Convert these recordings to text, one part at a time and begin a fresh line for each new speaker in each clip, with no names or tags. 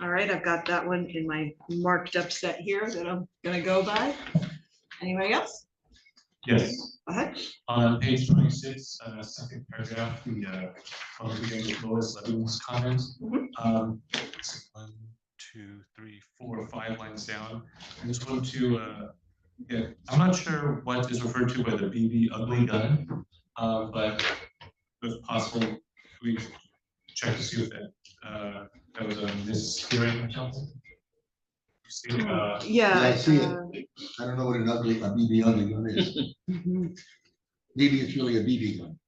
All right, I've got that one in my marked up set here that I'm gonna go by. Anybody else?
Yes,
Go ahead.
on page twenty-six, uh, second paragraph, the, uh, public hearing with Lois Levin's comments.
Mhm.
Um, it's one, two, three, four, five lines down, I just want to, uh, yeah, I'm not sure what is referred to by the BB ugly gun, uh, but if possible, we could check to see if that, uh, that was a mishearing or something. You see, uh,
Yeah.
I see it.
uh,
I don't know what an ugly, a BB ugly gun is.
mhm.
Maybe it's really a BB gun.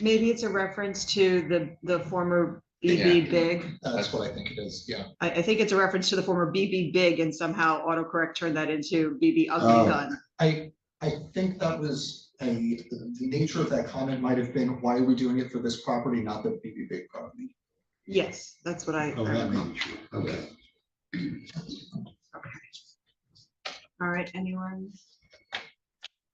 Maybe it's a reference to the, the former BB
Yeah.
Big.
That's what I think it is, yeah.
I, I think it's a reference to the former BB Big and somehow autocorrect turned that into BB Ugly
Oh.
Gun.
I, I think that was, a the nature of that comment might have been, why are we doing it for this property, not the BB Big property?
Yes, that's what I.
Oh, that may be true. Okay.
All right, anyone?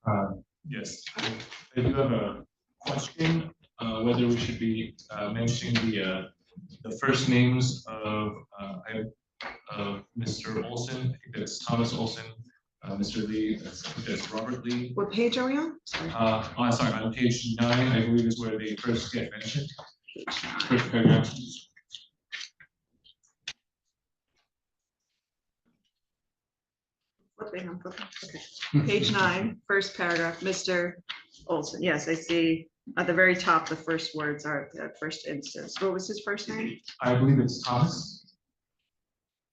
Um, Yes, I I do have a question, uh, whether we should be uh, mentioning the, uh, the first names of, uh, I- of Mr. Olson, I think that's Thomas Olson, uh, Mr. Lee, that's- I think that's Robert Lee.
What page are we on? Sorry.
Uh, oh, sorry, on page nine, I believe is where they first get mentioned. First paragraph.
Flipping, I'm flipping, okay. Page nine, first paragraph, Mr. Olson, yes, I see, at the very top, the first words are, the first instance, what was his first name?
I believe it's Thomas.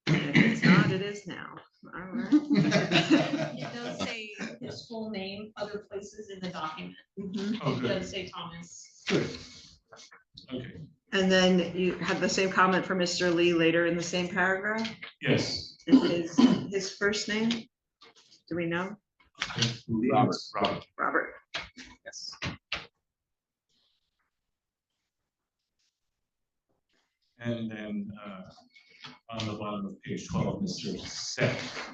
If It's not, it is now, all right.
It does say his full name other places in the document.
Mhm.
Oh,
It
good,
does say Thomas.
okay,
And then you had the same comment from Mr. Lee later in the same paragraph,
yes.
and his, his first name? Do we know?
I believe it's Robert.
Robert,
Yes. And then, uh, on the bottom of page twelve, Mr. Seth.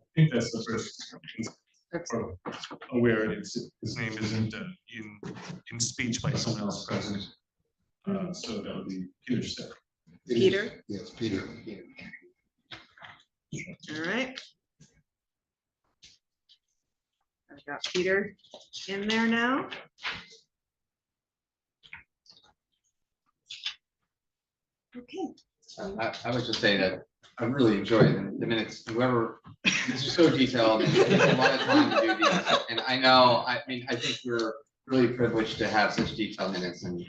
I think that's the first,
that's
or aware, it's, his name isn't uh, in, in speech by someone else present. Uh, so that would be Peter Seth.
Peter,
Yes, Peter.
all right. I've got Peter in there now. Okay.
I, I would just say that I really enjoy the the minutes, whoever, this is so detailed, and it takes a lot of time to do these. And I know, I mean, I think we're really privileged to have such detailed minutes and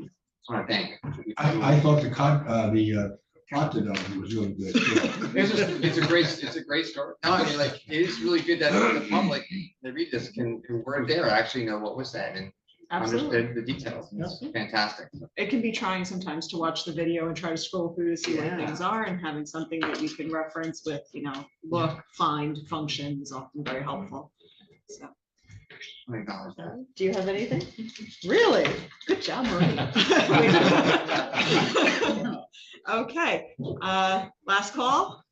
I want to thank.
I, I thought the con, uh, the uh, plot development was really good. too.
It's just, it's a great, it's a great story. No, I mean, like, it is really good that the public, they read this, can, who weren't there, actually know what was said and
Absolutely.
understood the details. and It's fantastic.
It can be trying sometimes to watch the video and try to scroll through to see what
Yeah.
things are and having something that you can reference with, you know, look, find, function is often very helpful. So,
I acknowledge that.
do you have anything? Really? Good job, Marie. Okay, uh, last call?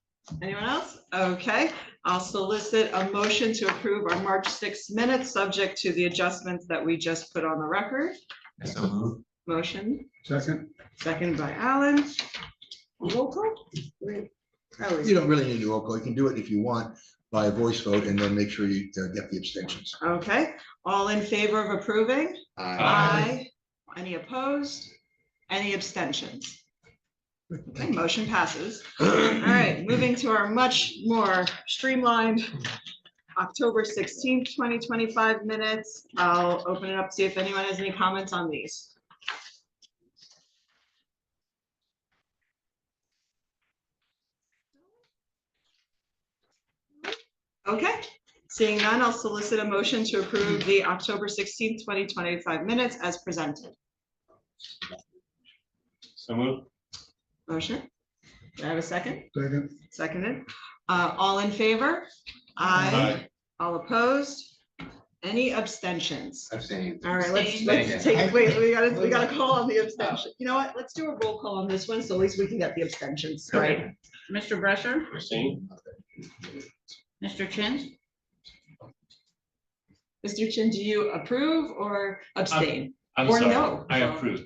Anyone else? Okay, I'll solicit a motion to approve our March sixth minutes, subject to the adjustments that we just put on the record.
So move.
Motion?
Second,
Second by Alan. Roll call? Oh,
you don't really need to roll call. You can do it if you want by voice vote and then make sure you uh, get the abstentions.
Okay, all in favor of approving?
Uh,
Aye.
Any opposed? Any abstentions? Okay, Motion passes. All right, moving to our much more streamlined October sixteenth, twenty twenty-five minutes. I'll open it up, see if anyone has any comments on these. Okay, seeing none, I'll solicit a motion to approve the October sixteenth, twenty twenty-five minutes as presented.
So move.
Motion? Do I have a second?
Second.
Seconded. Uh, all in favor? Aye. All opposed? Any abstentions?
I've seen.
All right, let's,
Abstain.
let's take, wait, we gotta, we gotta call on the abstention.
Abstain.
You know what? Let's do a roll call on this one, so at least we can get the abstentions, right?
Mr. Brescher,
Christine.
Mr. Chin,
Mr. Chin, do you approve or abstain?
I'm
Or
sorry,
no.
I approve.